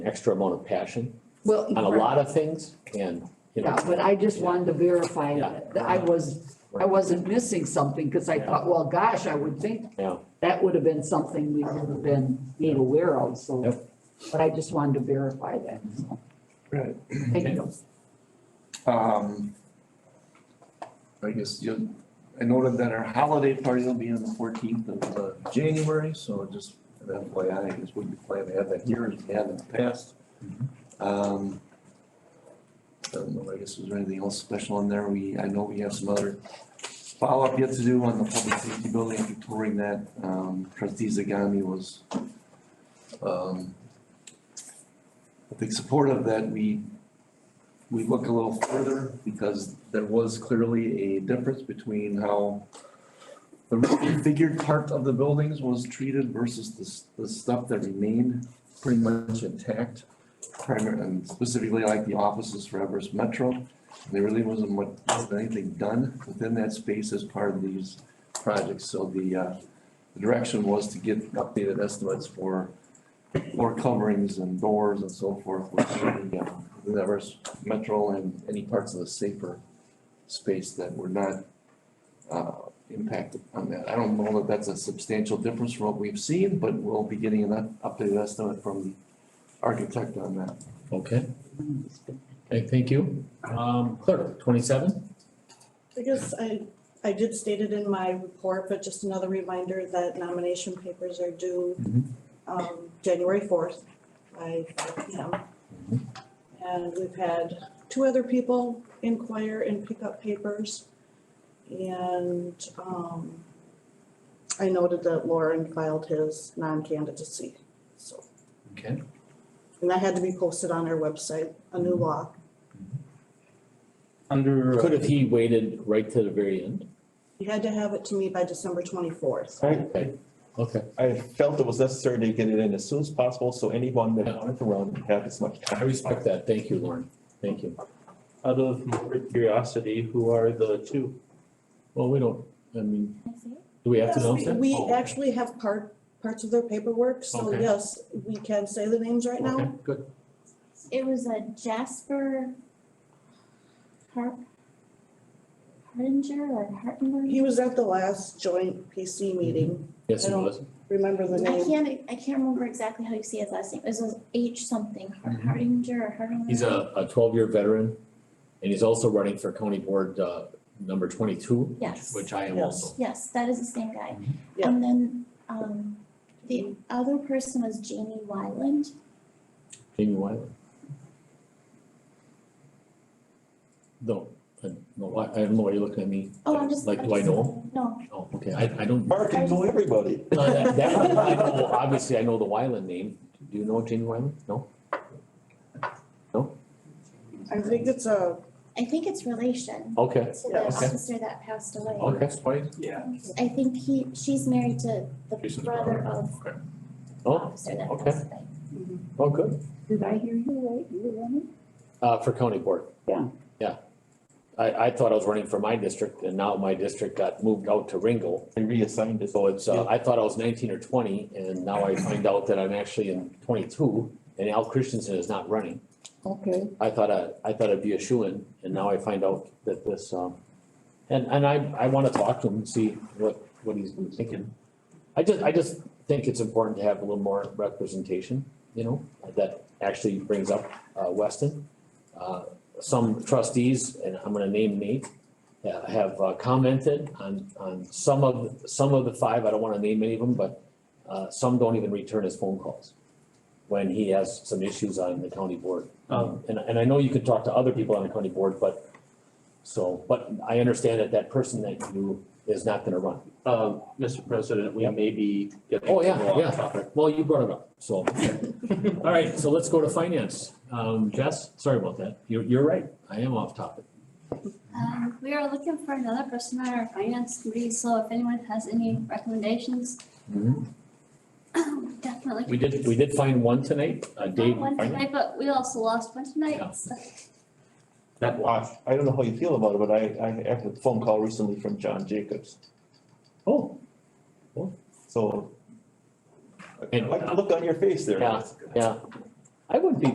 extra amount of passion Well. on a lot of things and, you Yeah, know, but I just wanted to verify Yeah. that I was, I wasn't missing something, because I thought, well, gosh, I would think yeah, that would have been something we would have been made aware of, so. Yep. But I just wanted to verify that, so, Right. thank you. Um. I guess you, I noted that our holiday party will be on the fourteenth of uh, January, so just an FYI, I guess we'd be planning to have that here as we have in the past. Um. I don't know, I guess was there anything else special in there? We, I know we have some other follow-up yet to do on the public safety building, if you're touring that, um, trustee Zagami was um, I think supportive that we we look a little further because there was clearly a difference between how the reconfigured part of the buildings was treated versus the, s- the stuff that remained pretty much intact. Primary, and specifically like the offices for Everest Metro, there really wasn't much, wasn't anything done within that space as part of these projects. So the, uh, the direction was to get updated estimates for floor coverings and doors and so forth, which, yeah, the Everest Metro and any parts of the safer space that were not uh, impacted on that. I don't know that that's a substantial difference from what we've seen, but we'll be getting an up- updated estimate from the architect on that. okay, okay, thank you. Um, clerk, twenty-seven, I guess I, I did state it in my report, but just another reminder that nomination papers are due Mhm. um, January fourth by five P M. And we've had two other people inquire and pick up papers. And um, I noted that Lauren filed his non-candidacy, so, okay, and that had to be posted on our website, a new law. Under. uh, could have he waited right to the very end? You had to have it to me by December twenty-fourth. Okay, okay, I felt it was necessary to get it in as soon as possible, so anyone that wanted to run had as much I time. respect that, thank you, Lauren, thank you. Out of more curiosity, who are the two? Well, we don't, I mean, do we have to Yes, announce that? We Oh, actually have part, parts of their paperwork, so Okay. yes, we can say the names right Okay, now. good, It was a Jasper Har- Hardinger or Hartinger? He was at the last joint PC meeting, yes, I it don't- was, remember the I name? can't, I can't remember exactly how you say his last name. It was H something, Har- Hardinger or Hardinger. he's a, a twelve-year veteran, and he's also running for county board, uh, number twenty-two, Yes, which I am Yes. also. yes, that is the same guy. Mhm. Yeah. And then, um, the other person was Jamie Wyland. Jamie Wyland. No, I, no, I, I don't know why you're looking at me. Oh, I'm just. Like, I'm do I just- know him? No, Oh, okay, I, I don't, Mark, you know everybody. no, that, that one I know, obviously I know the Wyland name. Do you know Jamie Wyland? No? I think it's a, I think it's relation Oh, Okay, to Yeah, the okay. officer that passed away. okay, why, I think he, she's married to the Jason's brother brother, of okay. the Oh, officer that okay. passed away. oh, good, Did I hear you right, you were running? uh, for county board. Yeah. Yeah. I, I thought I was running for my district and now my district got moved out to Ringo. I reassigned it. So it's, uh, I thought I was nineteen or twenty and now I find out that I'm actually in twenty-two and Al Christensen is not running. Okay, I thought I, I thought it'd be a shoo-in, and now I find out that this, um, and, and I, I wanna talk to him and see what, what he's been thinking. I just, I just think it's important to have a little more representation, you know, that actually brings up, uh, Weston. Uh, some trustees, and I'm gonna name Nate, uh, have uh, commented on, on some of, some of the five, I don't wanna name any of them, but, uh, some don't even return his phone calls when he has some issues on the county board. Um, and, and I know you could talk to other people on the county board, but, so, but I understand that that person that you is not gonna run. Um, Mr. President, we Yep. may be getting Oh, yeah, a little off yeah. topic. Well, you brought it up, so. All right, so let's go to finance. Um, Jess, sorry about that. You're, you're right. I am off topic. Um, we are looking for another person on our finance committee, so if anyone has any recommendations, definitely. We did, we did find one tonight, uh, Dave. Not One tonight, but we also lost one Yeah. tonight, so. That Wow, I don't know how you feel about it, but I, I had a phone call recently from John Jacobs, Oh, so. I And- like the look on your face there. Yeah. yeah. I would be